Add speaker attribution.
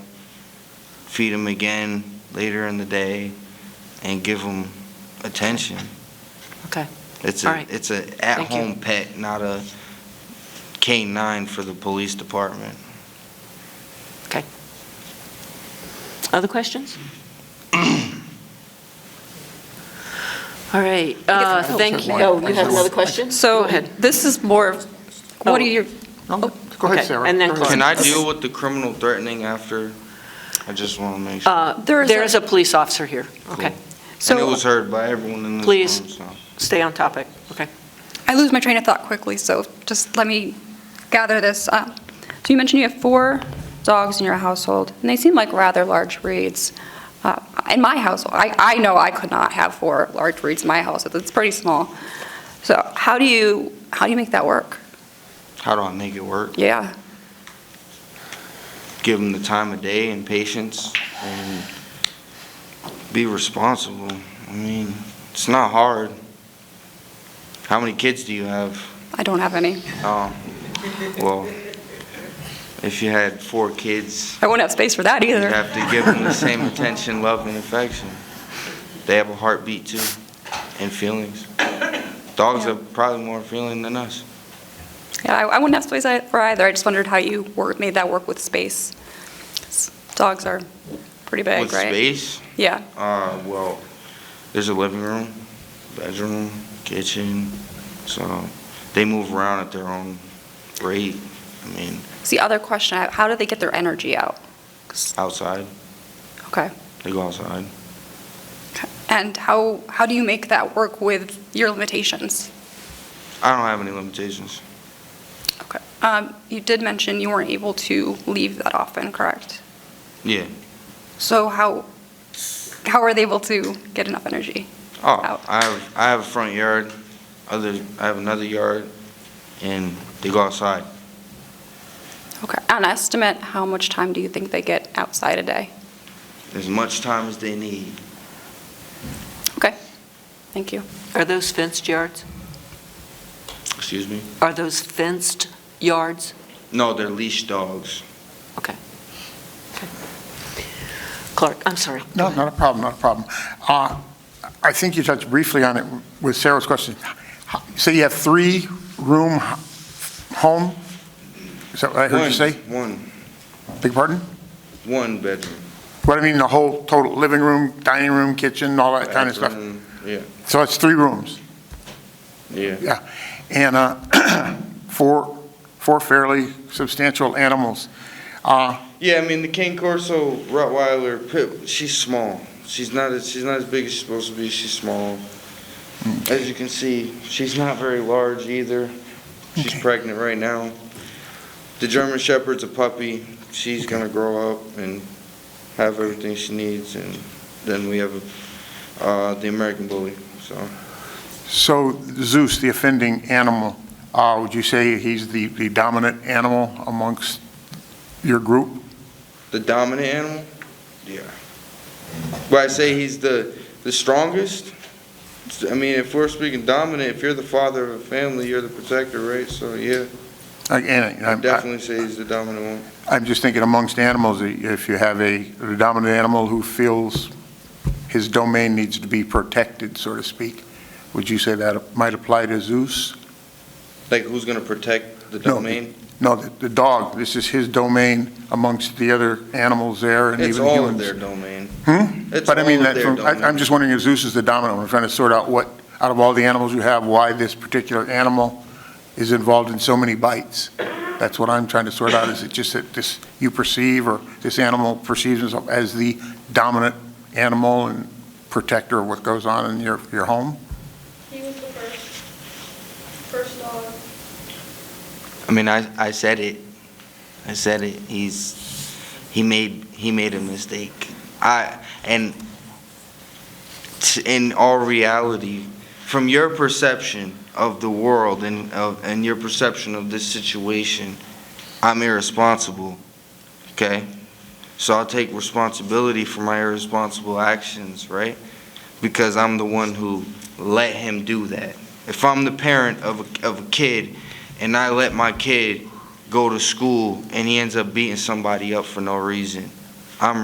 Speaker 1: feed them again later in the day and give them attention.
Speaker 2: Okay.
Speaker 1: It's
Speaker 2: All
Speaker 1: a,
Speaker 2: right.
Speaker 1: it's a
Speaker 2: Thank you.
Speaker 1: at-home pet, not a K-9 for the police department.
Speaker 2: Okay. Other questions? All right, uh, thank you. Oh, you have another question? Oh.
Speaker 3: So
Speaker 2: Go ahead.
Speaker 3: this is more, of what are your,
Speaker 4: No, Oh, Go ahead,
Speaker 2: Oh, Okay,
Speaker 4: Sarah.
Speaker 2: and then
Speaker 4: Go ahead.
Speaker 1: Can
Speaker 2: Clark.
Speaker 1: I deal with the criminal threatening after? I just want to make sure.
Speaker 2: Uh,
Speaker 3: There is
Speaker 2: There
Speaker 3: a-
Speaker 2: is a Oh. police officer here. Okay,
Speaker 1: And it
Speaker 3: so
Speaker 1: was heard by everyone in this room,
Speaker 2: Please.
Speaker 1: so.
Speaker 2: stay on topic. Okay.
Speaker 5: I lose my train of thought quickly, so just let me gather this up. So you mentioned you have four dogs in your household, and they seem like rather large breeds. Uh, In my household, I, I know I could not have four large breeds in my house, it's pretty small. So how do you, how do you make that work?
Speaker 1: How do I make it work?
Speaker 5: Yeah,
Speaker 1: Give them the time of day and patience and be responsible. I mean, it's not hard. How many kids do you have?
Speaker 5: I don't have any.
Speaker 1: Oh, well, if you had four kids,
Speaker 5: I wouldn't have space for that
Speaker 1: you'd
Speaker 5: either.
Speaker 1: have to give them the same attention, love, and affection. They have a heartbeat too, and feelings. Dogs
Speaker 5: Yeah.
Speaker 1: have probably more feeling than us.
Speaker 5: Yeah, I I wouldn't have space for either, I just wondered how you wor- made that work with space. Dogs are pretty big, right?
Speaker 1: With space,
Speaker 5: Yeah,
Speaker 1: Uh, well, there's a living room, bedroom, kitchen, so they move around at their own rate. I mean,
Speaker 5: it's the other question, I have, how do they get their energy out?
Speaker 1: outside,
Speaker 5: Okay.
Speaker 1: they go outside.
Speaker 5: And how, how do you make that work with your limitations?
Speaker 1: I don't have any limitations.
Speaker 5: Okay. Um, You did mention you weren't able to leave that often, correct?
Speaker 1: Yeah.
Speaker 5: So how, how are they able to get enough energy?
Speaker 1: Oh,
Speaker 5: Out.
Speaker 1: I have, I have a front yard, other, I have another yard, and they go outside.
Speaker 5: Okay. On estimate, how much time do you think they get outside a day?
Speaker 1: As much time as they need.
Speaker 5: Okay, thank you.
Speaker 2: Are those fenced yards?
Speaker 1: Excuse me?
Speaker 2: Are those fenced yards?
Speaker 1: No, they're leash dogs.
Speaker 2: Okay. Okay. Clark, I'm sorry.
Speaker 4: No, not a problem, not a problem. Uh, I think you touched briefly on it with Sarah's question. So you have three-room h- home? Is that what I heard you say?
Speaker 1: One,
Speaker 4: Beg your pardon?
Speaker 1: one, one bedroom.
Speaker 4: What I mean, the whole total living room, dining room, kitchen, all that kind of stuff?
Speaker 1: Bathroom, Yeah,
Speaker 4: So it's three rooms?
Speaker 1: yeah.
Speaker 4: Yeah, and uh, four, four fairly substantial animals. Uh,
Speaker 1: Yeah, I mean the King Corso Rottweiler pit. She's small. She's not. as She's not as big as she's supposed to be. She's small. As you can see, she's not very large either. She's
Speaker 4: Okay.
Speaker 1: pregnant right now. The German Shepherd's a puppy. She's gonna grow up and have everything she needs, and then we have uh, the American Bully. So
Speaker 4: So Zeus, the offending animal, uh, would you say he's the the dominant animal amongst your group?
Speaker 1: the dominant animal. Yeah. But I say he's the the strongest. I mean, if we're speaking dominant, if you're the father of a family, you're the protector, right? So yeah,
Speaker 4: Like, Uh, And
Speaker 1: I
Speaker 4: I'm- I-
Speaker 1: definitely say he's the dominant one.
Speaker 4: I'm just thinking amongst animals, if you have a a dominant animal who feels his domain needs to be protected, so to speak, would you say that might apply to Zeus?
Speaker 1: Like, who's gonna protect the
Speaker 4: No,
Speaker 1: domain?
Speaker 4: No, the the dog, this is his domain amongst the other animals there and
Speaker 1: It's
Speaker 4: even
Speaker 1: all of
Speaker 4: humans.
Speaker 1: their domain.
Speaker 4: Hmm?
Speaker 1: It's
Speaker 4: But I
Speaker 1: all
Speaker 4: mean,
Speaker 1: of
Speaker 4: that,
Speaker 1: their
Speaker 4: from- I- I'm
Speaker 1: domain.
Speaker 4: just wondering if Zeus is the dominant one, I'm trying to sort out what, out of all the animals you have, why this particular animal is involved in so many bites. That's what I'm trying to sort out, is it just that this, you perceive, or this animal perceives itself as the dominant animal and protector of what goes on in your, your home?
Speaker 6: He was the first, first dog.
Speaker 1: I mean, I I said it. I said it. He's he made he made a mistake. I and t- in all reality, from your perception of the world and of and your perception of this situation, I'm irresponsible. Okay? So I'll take responsibility for my irresponsible actions, right? Because I'm the one who let him do that. If I'm the parent of a, of a kid and I let my kid go to school and he ends up beating somebody up for no reason, I'm